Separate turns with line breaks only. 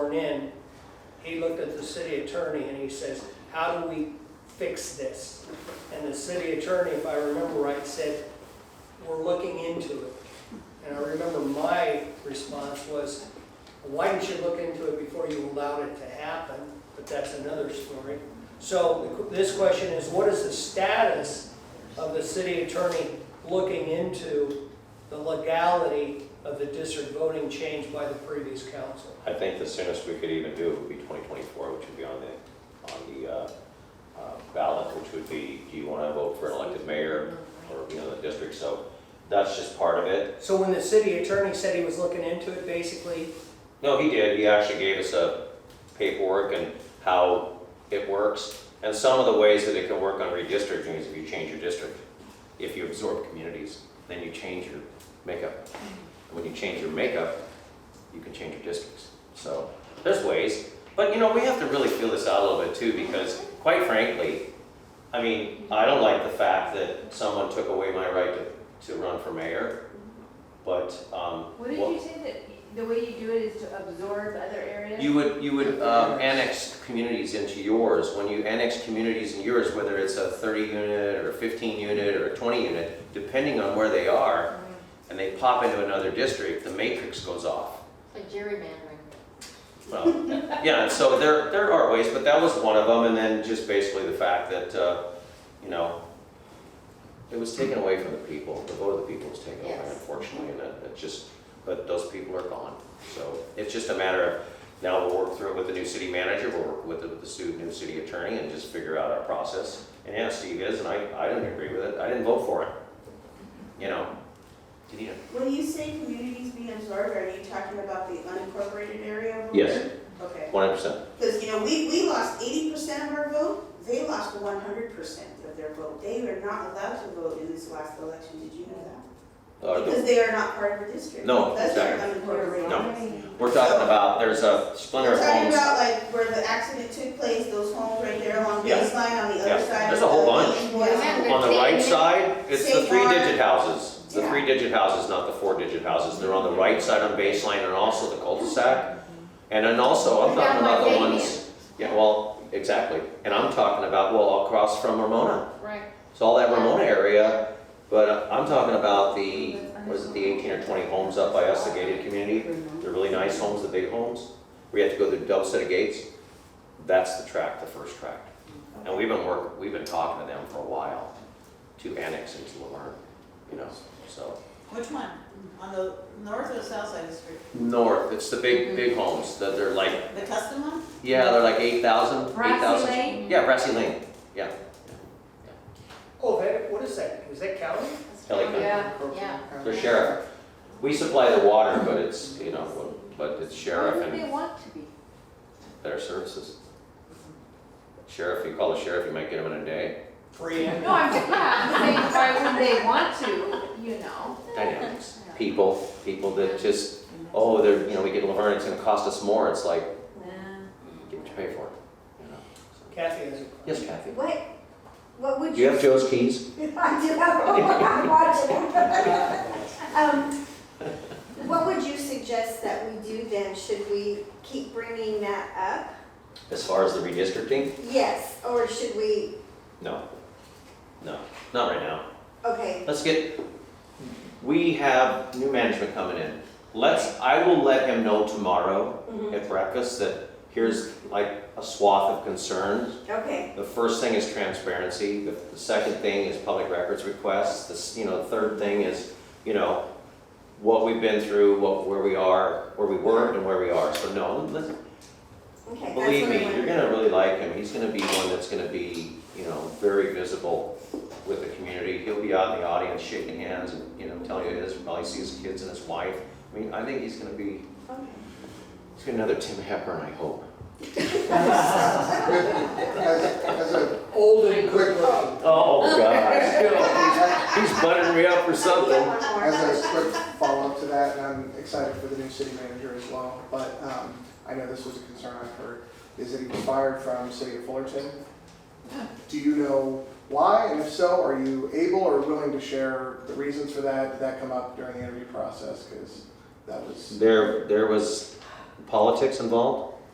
sworn in, he looked at the city attorney and he says, how do we fix this? And the city attorney, if I remember right, said, we're looking into it. And I remember my response was, why didn't you look into it before you allowed it to happen? But that's another story. So the qu- this question is, what is the status of the city attorney looking into the legality of the district voting change by the previous council?
I think the soonest we could even do it would be 2024, which would be on the, on the uh, uh, ballot, which would be, do you want to vote for an elected mayor or, you know, the district? So that's just part of it.
So when the city attorney said he was looking into it, basically,
No, he did. He actually gave us a paperwork and how it works and some of the ways that it can work on redistricting is if you change your district. If you absorb communities, then you change your makeup. And when you change your makeup, you can change your districts. So there's ways. But you know, we have to really feel this out a little bit too because quite frankly, I mean, I don't like the fact that someone took away my right to, to run for mayor. But, um.
What did
what-
you say that the way you do it is to absorb other areas?
You would, you would um, annex communities into yours. When you annex communities in yours, whether it's a 30 unit or a 15 unit or a 20 unit, depending on where they are, and they pop into another district, the matrix goes off.
Like gerrymandering.
Well, yeah, and so there, there are ways, but that was one of them. And then just basically the fact that, uh, you know, it was taken away from the people. The vote of the people was taken away,
Yes.
unfortunately, and it it just, but those people are gone. So it's just a matter of, now we'll work through it with the new city manager, we'll work with the, the stu- new city attorney and just figure out our process. And yeah, Steve is, and I, I didn't agree with it. I didn't vote for it. You know? Did you?
When you say communities being absorbed, are you talking about the unincorporated area over
Yes.
here? Okay,
One hundred percent.
because, you know, we, we lost eighty percent of our vote, they lost one hundred percent of their vote. They are not allowed to vote in this last election, did you know that? Because they are not part of the district.
Uh, No,
That's their
exactly.
unincorporated.
No.
areas.
We're talking about, there's a splinter
We're
of
talking
homes.
about like where the accident took place, those homes right there along
Yeah.
baseline on the
Yeah.
other side.
There's
of
a whole
the-
bunch.
Yeah.
On the right side, it's the
Same
three-digit houses, the
Yeah.
three-digit houses, not the four-digit houses. They're on the right side on baseline and also the cul-de-sac. And then also, I'm
They're
talking
down
about
by
the
Fabian.
ones, yeah, well, exactly. And I'm talking about, well, across from Ramona.
Right.
So all that Ramona area, but I'm talking about the, what is it, the eighteen or twenty homes up by us, the gated community? They're really nice homes, the big homes. We have to go through a double set of gates. That's the tract, the first tract. And we've been work, we've been talking to them for a while to annex into Laverne, you know, so.
Which one? On the north or south side of the street? Mm-hmm.
North, it's the big, big homes that they're like,
The custom one?
yeah, they're like eight thousand, eight
Brassy
thousand.
Lane?
Yeah, Brassy Lane, yeah.
oh, that, what is that? Is that county?
Kelly
Oh,
County.
Yeah, yeah.
They're sheriff. We supply the water, but it's, you know, but it's sheriff
Why would
and
they want to be?
their services. Sheriff, you call the sheriff, you might get them in a day.
Free and.
No, I'm, yeah, I'm saying, why would they want to, you know?
dynamics. People, people that just, oh, they're, you know, we get Laverne, it's gonna cost us more, it's like, get what you pay for. you know, so.
Kathy has a.
Yes, Kathy?
What, what would
Do
you?
you have Joe's keys?
I do have, I'm watching. Um, What would you suggest that we do then? Should we keep bringing that
As far as the redistricting?
up? Yes, or should we,
No. No, not right now.
okay,
Let's get, we have new management coming in. Let's, I will let him know tomorrow at breakfast that here's like a swath of concerns.
okay,
The first thing is transparency, the the second thing is public records requests, the, s- you know, the third thing is, you know, what we've been through, what, where we are, where we were and where we are, so no, listen,
okay. that's what I
believe me,
wanted.
you're gonna really like him, he's gonna be one that's gonna be, you know, very visible with the community, he'll be out in the audience shaking hands and, you know, telling you his, probably see his kids and his wife, I mean, I think he's gonna be,
Okay.
he's gonna be another Tim Hepburn, I hope.
As, as a
Old and
quick, as
Oh, gosh, he's buttering me up for something.
a quick follow-up to that, and I'm excited for the new city manager as well, but, um, I know this was a concern I've heard, is that he was fired from city of Fullerton. Do you know why, and if so, are you able or willing to share the reasons for that? Did that come up during the interview process? Because that was,
There, there was politics involved,